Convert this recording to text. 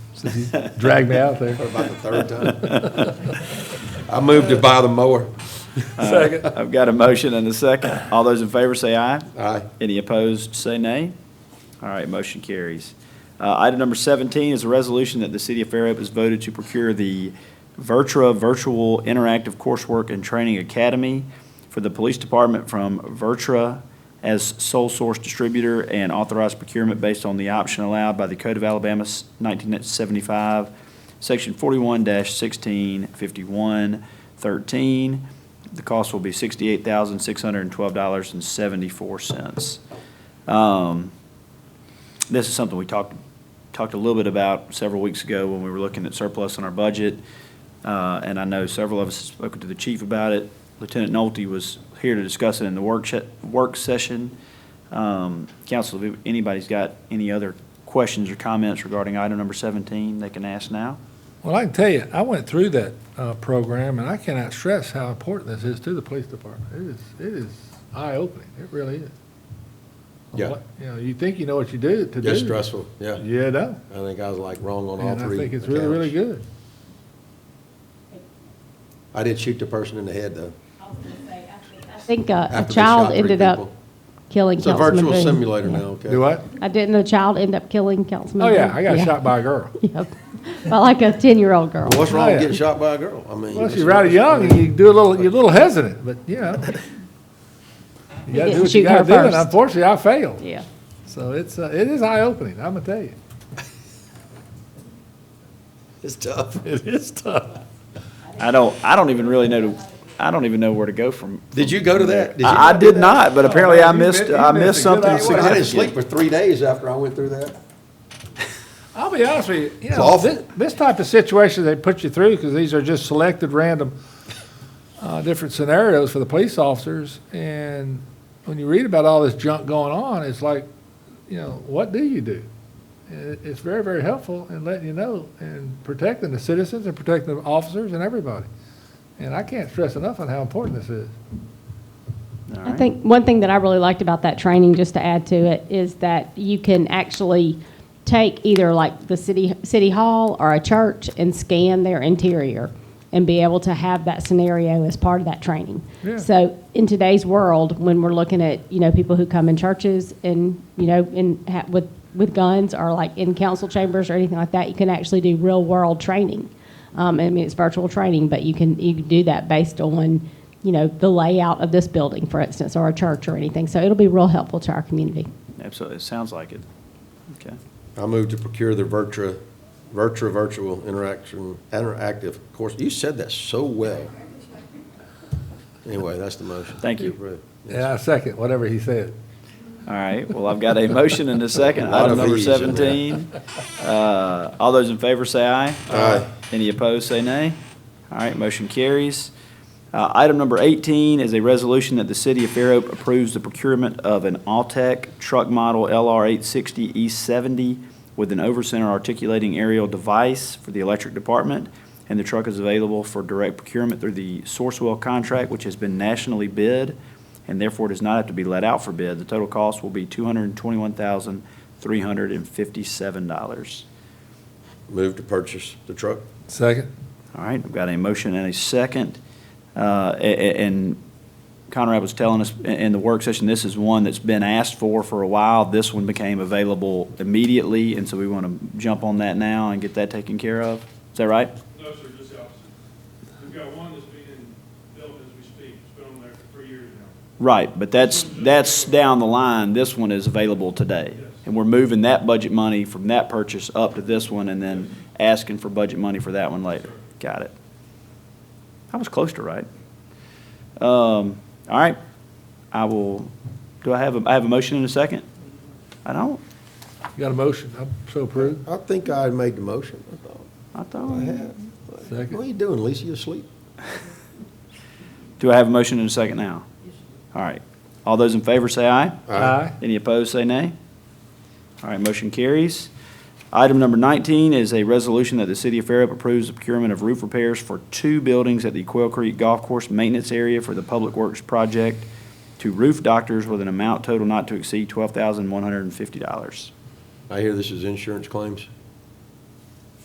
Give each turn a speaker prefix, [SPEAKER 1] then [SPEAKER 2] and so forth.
[SPEAKER 1] since you dragged Mm-hmm. me out there.
[SPEAKER 2] About the third time. I moved to buy the mower.
[SPEAKER 1] Second.
[SPEAKER 3] I've got a motion and a second. All those in favor say aye.
[SPEAKER 2] Aye.
[SPEAKER 3] Any opposed, say nay. All right, motion carries. Uh, Item number 17 is a resolution that the City of Fairhope has voted to procure the Vertra Virtual Interactive Coursework and Training Academy for the Police Department from Vertra as sole source distributor and authorized procurement based on the option allowed by the Code of Alabama 1975, Section 41-1651-13. The cost will be $68,612.74. Um, This is something we talked, talked a little bit about several weeks ago when we were looking at surplus in our budget. Uh, And I know several of us have spoken to the chief about it. Lieutenant Nolte was here to discuss it in the work, shet- work session. Um, Council, if anybody's got any other questions or comments regarding item number 17, they can ask now.
[SPEAKER 1] Well, I can tell you, I went through that uh, program, and I cannot stress how important this is to the police department. It is, it is eye-opening, it really is.
[SPEAKER 2] Yeah,
[SPEAKER 1] You know, you think you know what you do to do.
[SPEAKER 2] just stressful, yeah.
[SPEAKER 1] Yeah, no.
[SPEAKER 2] I think I was like wrong on all
[SPEAKER 1] And I
[SPEAKER 2] three.
[SPEAKER 1] think it's really, really
[SPEAKER 2] accounts.
[SPEAKER 1] good.
[SPEAKER 2] I did shoot the person in the head, though.
[SPEAKER 4] I was gonna say, I think- I think uh, a
[SPEAKER 2] after they shot
[SPEAKER 4] child
[SPEAKER 2] three
[SPEAKER 4] ended up
[SPEAKER 2] people.
[SPEAKER 4] killing
[SPEAKER 2] It's a
[SPEAKER 4] Councilman Boone.
[SPEAKER 2] virtual simulator
[SPEAKER 4] Yeah.
[SPEAKER 2] now, okay?
[SPEAKER 1] Do what?
[SPEAKER 4] I didn't, a child end up killing Councilman
[SPEAKER 1] Oh,
[SPEAKER 4] Boone.
[SPEAKER 1] yeah, I got shot by a girl.
[SPEAKER 4] Yep, by like a 10-year-old girl.
[SPEAKER 2] What's wrong
[SPEAKER 1] Yeah.
[SPEAKER 2] with getting shot by a girl? I mean.
[SPEAKER 1] Well,
[SPEAKER 2] it's-
[SPEAKER 1] she's rather young, and you do a little, you're a little hesitant, but, you know. You gotta
[SPEAKER 4] didn't
[SPEAKER 1] do what you
[SPEAKER 4] shoot
[SPEAKER 1] gotta
[SPEAKER 4] her
[SPEAKER 1] do, and
[SPEAKER 4] first.
[SPEAKER 1] unfortunately, I failed.
[SPEAKER 4] Yeah.
[SPEAKER 1] So it's, uh, it is eye-opening, I'm gonna tell you.
[SPEAKER 2] It's tough.
[SPEAKER 1] It is tough.
[SPEAKER 3] I don't, I don't even really know, I don't even know where to go from.
[SPEAKER 2] Did you go to that? you
[SPEAKER 3] I I
[SPEAKER 2] go to
[SPEAKER 3] did
[SPEAKER 2] that? Oh,
[SPEAKER 3] not, but apparently
[SPEAKER 1] man,
[SPEAKER 3] I
[SPEAKER 1] you mi-
[SPEAKER 3] missed,
[SPEAKER 1] you
[SPEAKER 3] I
[SPEAKER 1] missed a
[SPEAKER 3] missed
[SPEAKER 1] good
[SPEAKER 3] something
[SPEAKER 1] hour.
[SPEAKER 2] Well, I didn't
[SPEAKER 3] significant.
[SPEAKER 2] sleep for three days after I went through that.
[SPEAKER 1] I'll be honest with you, you
[SPEAKER 2] It's
[SPEAKER 1] know,
[SPEAKER 2] awful.
[SPEAKER 1] this, this type of situation they put you through, because these are just selected random, uh, different scenarios for the police officers, and when you read about all this junk going on, it's like, you know, what do you do? And it- it's very, very helpful in letting you know and protecting the citizens and protecting the officers and everybody. And I can't stress enough on how important this is.
[SPEAKER 3] All
[SPEAKER 4] I
[SPEAKER 3] right.
[SPEAKER 4] think one thing that I really liked about that training, just to add to it, is that you can actually take either like the city, city hall or a church and scan their interior and be able to have that scenario as part of that training.
[SPEAKER 1] Yeah.
[SPEAKER 4] So in today's world, when we're looking at, you know, people who come in churches and, you know, in, ha- with, with guns or like in council chambers or anything like that, you can actually do real world training. Um, I mean, it's virtual training, but you can, you can do that based on, you know, the layout of this building, for instance, or a church or anything. So it'll be real helpful to our community.
[SPEAKER 3] Absolutely, it sounds like it. Okay.
[SPEAKER 2] I moved to procure the Vertra, Vertra Virtual Interaction, Interactive Course. You said that so well. Anyway, that's the motion.
[SPEAKER 3] Thank you.
[SPEAKER 2] Approved. Yes.
[SPEAKER 1] Yeah, I second whatever he said.
[SPEAKER 3] All right, well, I've got a motion and a second,
[SPEAKER 2] A lot
[SPEAKER 3] item
[SPEAKER 2] of
[SPEAKER 3] number
[SPEAKER 2] Vs in there.
[SPEAKER 3] 17. Uh, All those in favor say aye.
[SPEAKER 2] Aye.
[SPEAKER 3] Any opposed, say nay. All right, motion carries. Uh, Item number 18 is a resolution that the City of Fairhope approves the procurement of an Altech truck model LR 860E70 E with an over-center articulating aerial device for the electric department, and the truck is available for direct procurement through the Sourcewell contract, which has been nationally bid and therefore does not have to be let out for bid. The total cost will be $221,357.
[SPEAKER 2] Moved to purchase the truck.
[SPEAKER 1] Second?
[SPEAKER 3] All right, I've got a motion and a second. Uh, a- a- And Conrad was telling us i- in the work session, this is one that's been asked for for a while. This one became available immediately, and so we want to jump on that now and get that taken care of. Is that right?
[SPEAKER 5] No, sir, just the opposite. We've got one that's being built as we speak. It's been on there for three years now.
[SPEAKER 3] Right, but that's, that's down the line. This one is available today. And we're moving that budget money from that purchase up to this one and then asking for budget money for that one later. Got it. I was close to right. Um, all right, I will, do I have, a I have a motion in a second? I don't,
[SPEAKER 1] You got a motion? I'm so approved.
[SPEAKER 2] I think I made the motion. I thought
[SPEAKER 3] I
[SPEAKER 2] I
[SPEAKER 3] don't.
[SPEAKER 2] had.
[SPEAKER 1] Second.
[SPEAKER 2] What are you doing, Lisa? You asleep?
[SPEAKER 3] Do I have a motion in a second now? All right. All those in favor say aye.
[SPEAKER 1] Aye.
[SPEAKER 3] Any opposed, say nay. All right, motion carries. Item number 19 is a resolution that the City of Fairhope approves the procurement of roof repairs for two buildings at the Quail Creek Golf Course Maintenance Area for the Public Works Project to roof doctors with an amount total not to exceed $12,150.
[SPEAKER 2] I hear this is insurance claims.